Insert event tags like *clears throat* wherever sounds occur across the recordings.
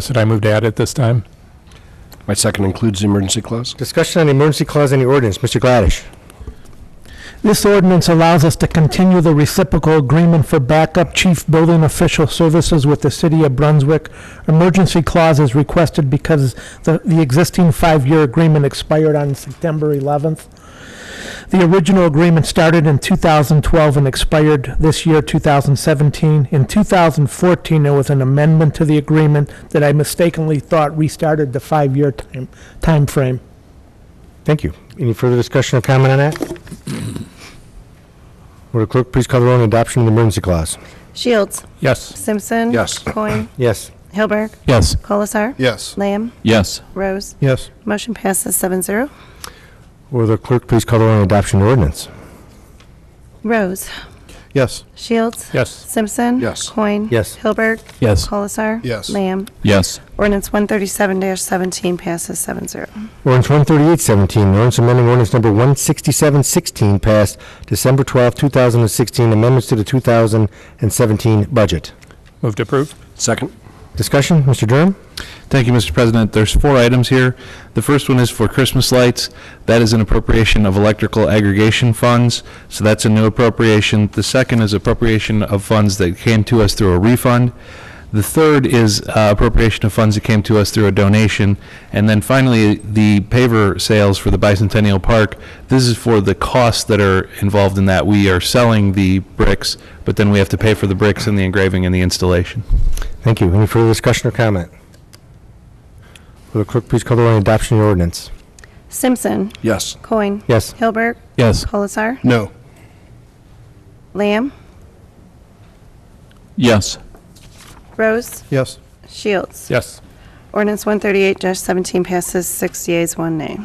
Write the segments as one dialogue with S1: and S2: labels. S1: Should I move to add it this time?
S2: My second includes the emergency clause.
S3: Discussion on the emergency clause in the ordinance. Mr. Gladish.
S4: This ordinance allows us to continue the reciprocal agreement for backup chief building official services with the city of Brunswick. Emergency clause is requested because the, the existing five-year agreement expired on September 11th. The original agreement started in 2012 and expired this year, 2017. In 2014, there was an amendment to the agreement that I mistakenly thought restarted the five-year time, timeframe.
S3: Thank you. Any further discussion or comment on that? Will the clerk please call the roll on adoption of the emergency clause?
S5: Shields.
S1: Yes.
S5: Simpson.
S2: Yes. *clears throat*
S5: Coin.
S3: Yes.
S5: Hilberg.
S1: Yes.
S5: Colasar.
S2: Yes.
S5: Lamb.
S6: Yes.
S5: Rose.
S3: Yes.
S5: Motion passes seven zero.
S3: Will the clerk please call the roll on adoption of the ordinance?
S5: Rose.
S3: Yes.
S5: Shields.
S1: Yes.
S5: Simpson.
S2: Yes.
S5: Coin.
S3: Yes.
S5: Hilberg.
S6: Yes.
S5: Colasar.
S2: Yes.
S5: Lamb.
S6: Yes.
S5: Ordinance one thirty-seven seventeen passes seven zero.
S3: Ordinance 13817, an ordinance amending ordinance number 16716 passed December 12, 2016, amendments to the 2017 budget.
S1: Move to approve?
S2: Second?
S3: Discussion, Mr. Durham?
S6: Thank you, Mr. President. There's four items here. The first one is for Christmas lights. That is an appropriation of electrical aggregation funds, so that's a new appropriation. The second is appropriation of funds that came to us through a refund. The third is uh, appropriation of funds that came to us through a donation. And then finally, the paver sales for the Bicentennial Park. This is for the costs that are involved in that. We are selling the bricks, but then we have to pay for the bricks and the engraving and the installation.
S3: Thank you. Any further discussion or comment? Will the clerk please call the roll on adoption of the ordinance?
S5: Simpson.
S2: Yes.
S5: Coin.
S3: Yes.
S5: Hilberg.
S6: Yes.
S5: Colasar.
S2: No.
S5: Lamb.
S6: Yes.
S5: Rose.
S3: Yes.
S5: Shields.
S1: Yes.
S5: Ordinance one thirty-eight seventeen passes six yeas, one nay.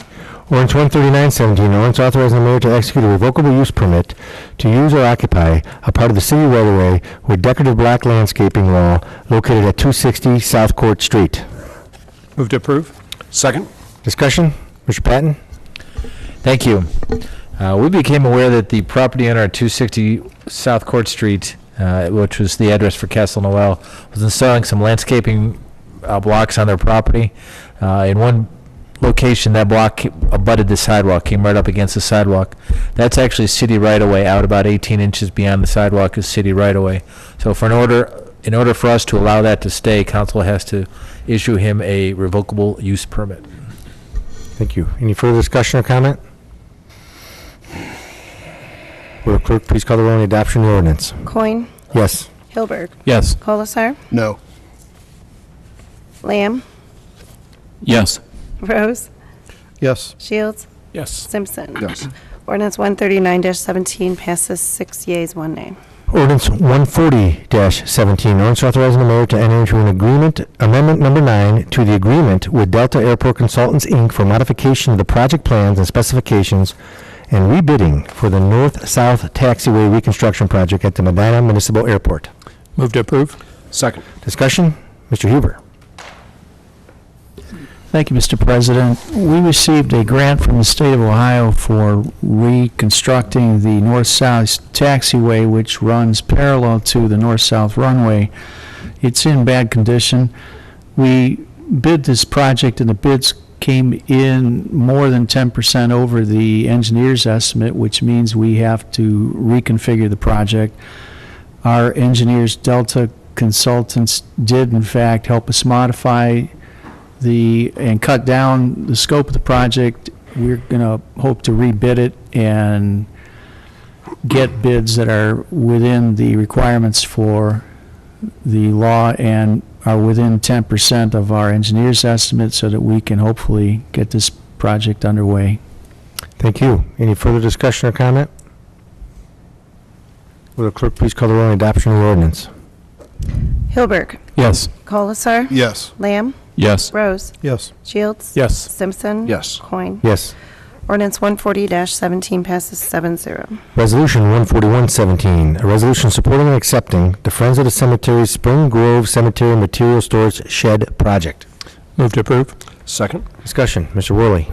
S3: Ordinance 13917, an ordinance authorizing the mayor to execute a revocable use permit to use or occupy a part of the city right-of-way with decorative black landscaping wall located at 260 South Court Street.
S1: Move to approve?
S2: Second?
S3: Discussion? Mr. Patton?
S7: Thank you. Uh, we became aware that the property owner at 260 South Court Street, uh, which was the address for Castle Noel, was installing some landscaping uh, blocks on their property. Uh, in one location, that block abutted the sidewalk, came right up against the sidewalk. That's actually city right of way out about 18 inches beyond the sidewalk is city right of way. So for an order, in order for us to allow that to stay, council has to issue him a revocable use permit.
S3: Thank you. Any further discussion or comment? Will the clerk please call the roll on adoption of the ordinance?
S5: Coin.
S3: Yes.
S5: Hilberg.
S6: Yes.
S5: Colasar.
S2: No.
S5: Lamb.
S6: Yes.
S5: Rose.
S3: Yes.
S5: Shields.
S1: Yes.
S5: Simpson.
S2: Yes.
S5: Ordinance 139-17 passes six yeas, one nay.
S3: Ordinance 140-17, ordinance authorizing the mayor to enter into an agreement, amendment number nine, to the agreement with Delta Airport Consultants, Inc. for modification of the project plans and specifications and rebidding for the north-south taxiway reconstruction project at the Medina Municipal Airport.
S1: Move to approve?
S2: Second?
S3: Discussion? Mr. Huber.
S8: Thank you, Mr. President. We received a grant from the state of Ohio for reconstructing the north-south taxiway, which runs parallel to the north-south runway. It's in bad condition. We bid this project, and the bids came in more than 10% over the engineer's estimate, which means we have to reconfigure the project. Our engineers, Delta Consultants, did in fact help us modify the, and cut down the scope of the project. We're going to hope to rebid it and get bids that are within the requirements for the law and are within 10% of our engineer's estimate so that we can hopefully get this project underway.
S3: Thank you. Any further discussion or comment? Will the clerk please call the roll on adoption of the ordinance?
S5: Hilberg.
S6: Yes.
S5: Colasar.
S2: Yes.
S5: Lamb.
S6: Yes.
S5: Rose.
S3: Yes.
S5: Shields.
S1: Yes.
S5: Simpson.
S2: Yes.
S5: Coin.
S3: Yes.
S5: Ordinance 140-17 passes seven zero.
S3: Resolution 14117, a resolution supporting and accepting the Friends of the Cemetery Spring Grove Cemetery Material Storage Shed Project.
S1: Move to approve?
S2: Second?
S3: Discussion, Mr. Worley.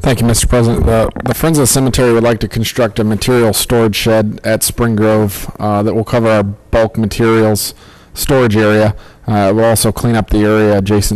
S9: Thank you, Mr. President. The, the Friends of the Cemetery would like to construct a material storage shed at Spring Grove uh, that will cover our bulk materials storage area. Uh, We'll also clean up the area adjacent